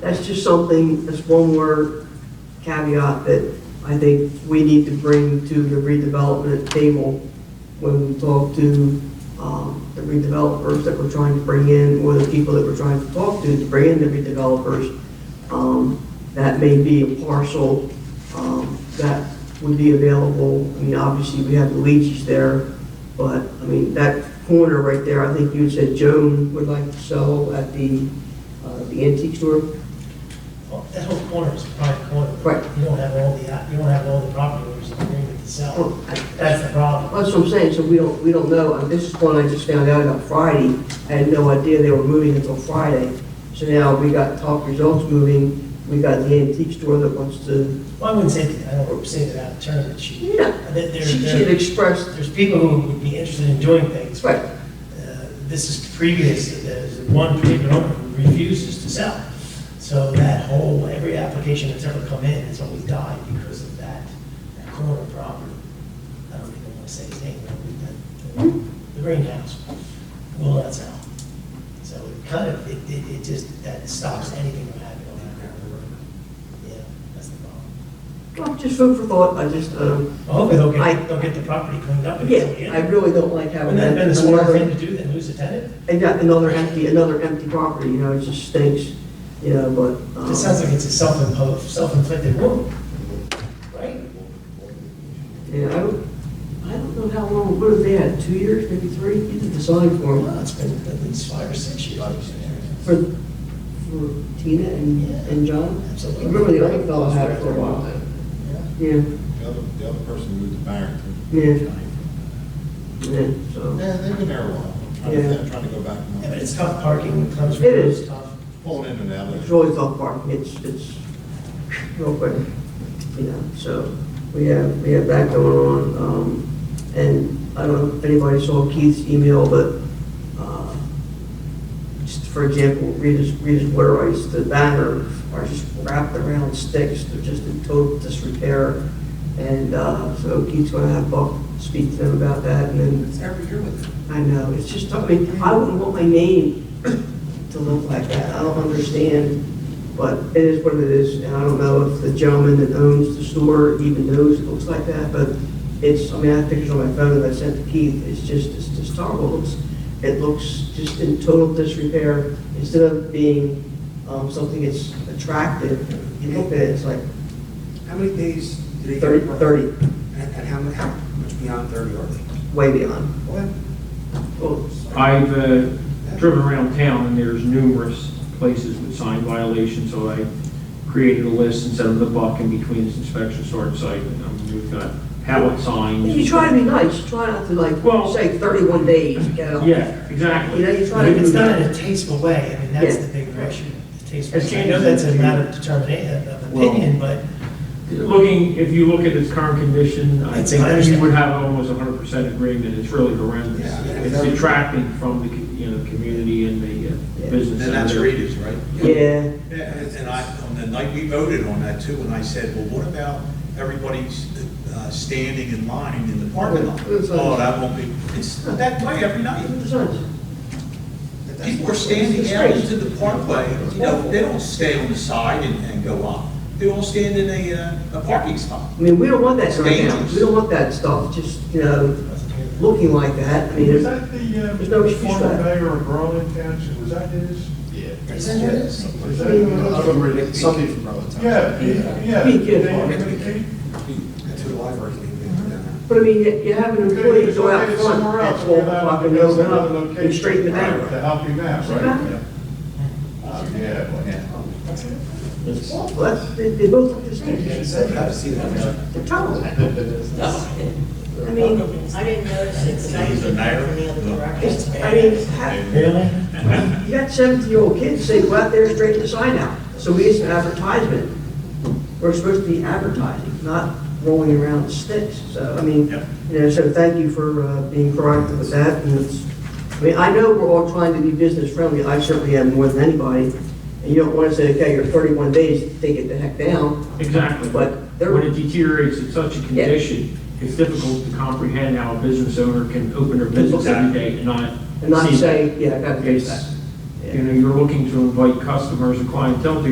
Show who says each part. Speaker 1: That's just something, that's one more caveat that I think we need to bring to the redevelopment table when we talk to um, the redevelopers that we're trying to bring in, or the people that we're trying to talk to to bring in the redevelopers. Um, That may be a parcel um, that would be available. I mean, obviously, we have the Luigi's there, but, I mean, that corner right there, I think you had said Joan would like to sell at the uh, the antique store.
Speaker 2: Well, That whole corner is a private corner.
Speaker 1: Right.
Speaker 2: You don't have all the, you don't have all the property owners in agreement to sell.
Speaker 1: Oh, I-
Speaker 2: That's the problem.
Speaker 1: That's what I'm saying, so we don't, we don't know, and this is one I just found out about Friday, I had no idea they were moving until Friday. So now we got Top Results moving, we got the antique store that wants to,
Speaker 2: Well, I wouldn't say, that- I don't say that out of turn, but she,
Speaker 1: Yeah.
Speaker 2: there, there-
Speaker 1: she she had expressed,
Speaker 2: there's people who would be interested in doing things.
Speaker 1: right,
Speaker 2: Uh, This is previous, there's one particular owner who refuses to sell. So that whole, every application that's ever come in has always died because of that, that corner property. I don't even want to say his name, but we- that- the greenhouse will not sell. So it kind of, it, it, it just, that stops anything from happening on that ground. Yeah, that's the problem.
Speaker 1: well, just food for thought, I just, um,
Speaker 2: Well, Hopefully they'll
Speaker 1: I-
Speaker 2: get, they'll get the property cleaned up. and
Speaker 1: yeah,
Speaker 2: it's all
Speaker 1: I
Speaker 2: in.
Speaker 1: really don't like having
Speaker 2: Wouldn't
Speaker 1: that.
Speaker 2: that have been the smarter thing
Speaker 1: another-
Speaker 2: to do than lose a tenant?
Speaker 1: And got another empty, another empty property, you know, it just stinks, you know, but. um,
Speaker 2: It sounds like it's a self-imposed, self-inflicted wound, right?
Speaker 1: Yeah, I don't, I don't know how long, what have they had, two years, maybe three, you did the sign for them,
Speaker 2: Well, it's been at least five or six years.
Speaker 1: for, for Tina and, and John?
Speaker 2: Absolutely.
Speaker 1: Remember the other fellow had it for a while?
Speaker 2: Yeah.
Speaker 1: Yeah,
Speaker 3: The other, the other person moved to Barrington.
Speaker 1: yeah, yeah, so,
Speaker 3: Yeah, they've been there a while. I'm trying
Speaker 1: Yeah.
Speaker 3: to, I'm trying to go back
Speaker 2: Yeah, but
Speaker 3: and
Speaker 2: it's tough parking, it comes from
Speaker 1: It is.
Speaker 2: those tough.
Speaker 3: pulling in and out of
Speaker 1: it's
Speaker 3: there.
Speaker 1: always off parking, it's, it's real quick, you know, so, we have, we have that going on, um, and I don't know if anybody saw Keith's email, but, uh, just for example, Rita's, Rita's water ice, the banner are just wrapped around sticks, they're just in total disrepair. And uh, so Keith's gonna have Buck speak to them about that, and then. It's every year with them. I know, it's just, I mean, I wouldn't want my name to look like that, I don't understand, but it is what it is, and I don't know if the gentleman that owns the store even knows it looks like that, but it's, I mean, I have pictures on my phone that I sent to Keith, it's just, it's just horrible, It looks it looks just in total disrepair. Instead of being um, something that's attractive, you look at it, it's like
Speaker 4: How many days do they? get
Speaker 1: 30,
Speaker 4: work?
Speaker 1: 30,
Speaker 4: And and how mu- how much beyond 30 are they?
Speaker 1: way beyond. Well,
Speaker 5: I've uh, driven around town, and there's numerous places with sign violations, so I created a list and sent them the buck in between this inspection start site, and um, we've got pallet signs.
Speaker 1: You try to be nice, try not to like,
Speaker 5: Well-
Speaker 1: say 31 days, get out.
Speaker 5: Yeah, exactly.
Speaker 1: You know, you try
Speaker 2: But
Speaker 1: to
Speaker 2: if
Speaker 1: do
Speaker 2: it's done
Speaker 1: that.
Speaker 2: in a tasteful way, I mean, that's
Speaker 1: Yeah.
Speaker 2: the bigger issue. the Tasteful,
Speaker 5: It's
Speaker 2: I know
Speaker 5: changed.
Speaker 2: that's a matter of determination, of
Speaker 5: Well,
Speaker 2: opinion, but
Speaker 5: Looking, if you look at its current condition, I
Speaker 2: It's-
Speaker 5: think
Speaker 2: I
Speaker 5: that you
Speaker 2: understand.
Speaker 5: would have almost hundred percent agreement, it's really horrendous.
Speaker 4: Yeah, yeah.
Speaker 5: It's detracting from the, co- you know, the community and the
Speaker 1: Yeah.
Speaker 5: uh, business.
Speaker 6: Then that's
Speaker 5: center.
Speaker 6: Rita's, right?
Speaker 1: Yeah,
Speaker 6: And and I, on the night we voted on that too, and I said, well, what about everybody's uh, standing in line in the parking lot?
Speaker 1: It's like-
Speaker 6: Oh, that won't be, it's that way every night.
Speaker 1: it's nice.
Speaker 6: People are standing out into the parkway, you know, they don't stay on the side and, and go up. They all stand in a, uh, a parking spot.
Speaker 1: I mean, we don't want that right now.
Speaker 6: Dangerous.
Speaker 1: We don't want that stuff, just, you know,
Speaker 2: doesn't hear that.
Speaker 1: looking like that. I mean,
Speaker 7: Is
Speaker 1: it's-
Speaker 7: that the,
Speaker 1: There's no
Speaker 7: uh,
Speaker 1: excuse for
Speaker 7: former
Speaker 1: that.
Speaker 7: mayor of Berlin Township, was that his?
Speaker 2: Isn't it?
Speaker 7: Is
Speaker 6: Uh,
Speaker 7: that his?
Speaker 4: Something from relative.
Speaker 7: Yeah, he- yeah.
Speaker 1: He did.
Speaker 7: They-
Speaker 4: That's who the library
Speaker 7: Uh-huh.
Speaker 4: leaving.
Speaker 1: But I mean, you you have an employee go out front at 12 o'clock and they'll go up and straighten it out.
Speaker 7: To help him out, right? Uh, Yeah.
Speaker 1: It's awful, that's, they, they both look the same.
Speaker 4: I've seen that.
Speaker 1: They're terrible. I mean,
Speaker 8: I didn't notice it, but I was
Speaker 6: He's a
Speaker 8: looking
Speaker 6: mayor.
Speaker 8: from the other
Speaker 1: it's,
Speaker 8: direction.
Speaker 1: I mean, ha-
Speaker 2: Really?
Speaker 1: you got seventy-year-old kids say, go out there and straighten the sign out. So we as an advertisement, we're supposed to be advertising, not rolling around with sticks. So, I mean,
Speaker 6: Yep.
Speaker 1: you know, so thank you for, uh, being proactive with that. And it's, I mean, I know we're all trying to be business friendly. I certainly am more than anybody. And you don't want to say, okay, you're thirty-one days, take it the heck down.
Speaker 5: Exactly, but
Speaker 1: But there-
Speaker 5: when it deteriorates in such a
Speaker 1: Yeah.
Speaker 5: condition, it's difficult to comprehend how a business owner can open their business every day and not.
Speaker 1: And not
Speaker 5: see that.
Speaker 1: say, yeah, I gotta fix
Speaker 5: It's-
Speaker 1: that.
Speaker 5: You know, you're looking to invite customers and clientele to